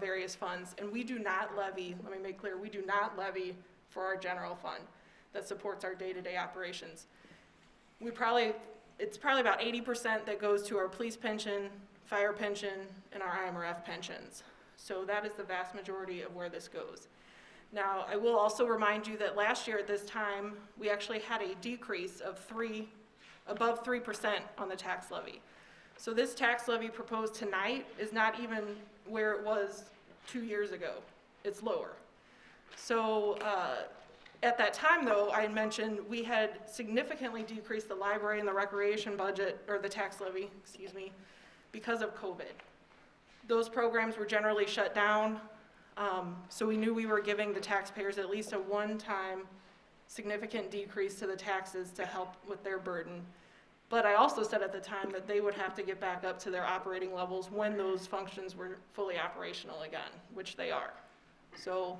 various funds, and we do not levy, let me make clear, we do not levy for our general fund that supports our day-to-day operations. We probably, it's probably about eighty percent that goes to our police pension, fire pension, and our IMRF pensions. So that is the vast majority of where this goes. Now, I will also remind you that last year at this time, we actually had a decrease of three, above three percent on the tax levy. So this tax levy proposed tonight is not even where it was two years ago. It's lower. So, uh, at that time, though, I had mentioned we had significantly decreased the library and the recreation budget, or the tax levy, excuse me, because of COVID. Those programs were generally shut down, um, so we knew we were giving the taxpayers at least a one-time significant decrease to the taxes to help with their burden. But I also said at the time that they would have to get back up to their operating levels when those functions were fully operational again, which they are. So,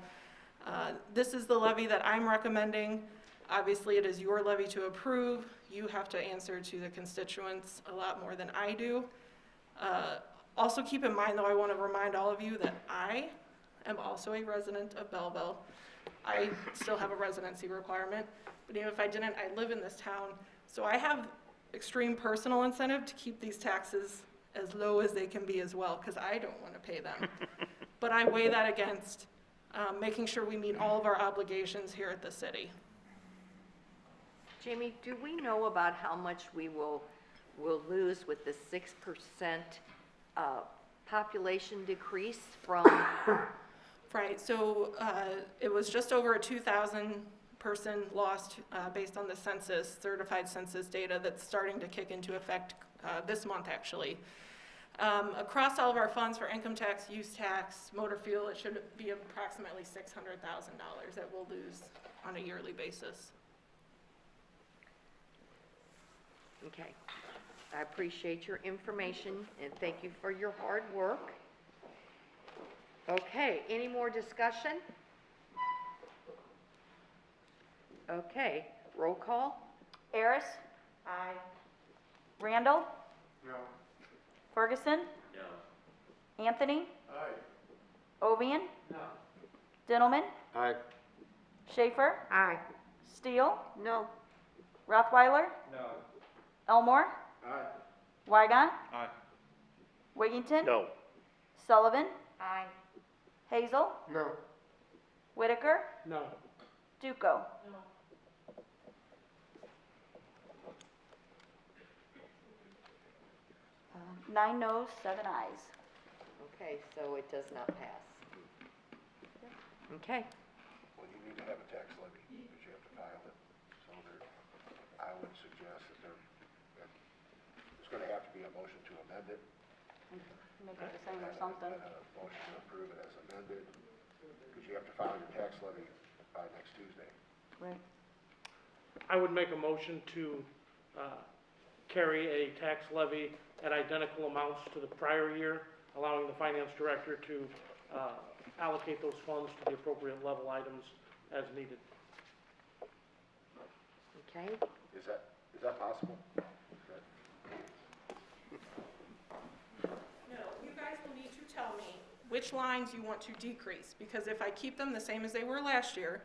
uh, This is the levy that I'm recommending. Obviously, it is your levy to approve. You have to answer to the constituents a lot more than I do. Uh, Also, keep in mind, though, I want to remind all of you that I am also a resident of Belleville. I still have a residency requirement, but even if I didn't, I live in this town. So I have extreme personal incentive to keep these taxes as low as they can be as well, because I don't want to pay them. But I weigh that against um, making sure we meet all of our obligations here at the city. Jamie, do we know about how much we will, will lose with the six percent, uh, population decrease from, Right, so uh, it was just over a 2,000-person loss uh, based on the census, certified census data that's starting to kick into effect uh, this month, actually. Um, Across all of our funds for income tax, use tax, motor fuel, it should be approximately $600,000 that we'll lose on a yearly basis. okay. I appreciate your information and thank you for your hard work. Okay, any more discussion? Okay, roll call? Harris? Aye. Randall? No. Ferguson? No. Anthony? Aye. Ovian? No. Dintelman? Aye. Schaefer? Aye. Steele? No. Rothweiler? No. Elmore? Aye. Weigon? Aye. Wiggington? No. Sullivan? Aye. Hazel? No. Whitaker? No. Duco? Uh, Nine noes, seven ayes. Okay, so it does not pass. Okay, Well, you need to have a tax levy, because you have to file it. So there, I would suggest that there, that there's gonna have to be a motion to amend it. Make it the same or something. And a motion to approve it as amended, because you have to file your tax levy by next Tuesday. Right. I would make a motion to uh, carry a tax levy at identical amounts to the prior year, allowing the finance director to uh, allocate those funds to the appropriate level items as needed. okay. Is that, is that possible? That- No, you guys will need to tell me which lines you want to decrease, because if I keep them the same as they were last year,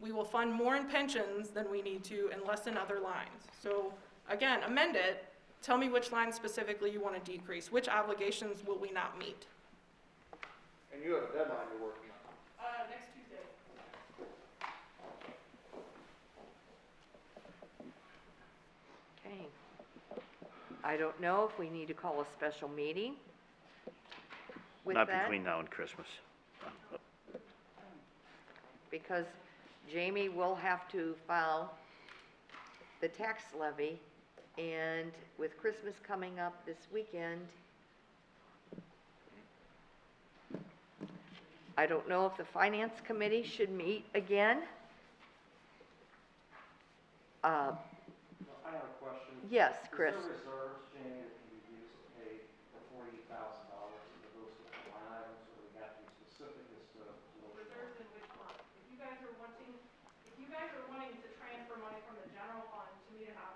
we will fund more in pensions than we need to and less in other lines. So, again, amend it, tell me which lines specifically you want to decrease, which obligations will we not meet? And you have a deadline you're working on. Uh, next Tuesday. Okay. I don't know if we need to call a special meeting with Not that, between now and Christmas. because Jamie will have to file the tax levy, and with Christmas coming up this weekend, I don't know if the finance committee should meet again. Uh, I have a question. yes, Chris. Is there reserves, Jamie, that can be used to pay the forty thousand dollars in the books of line items, or we have to be specific as to those? Reserves in which month? If you guys are wanting, if you guys are wanting to transfer money from the general fund to meet an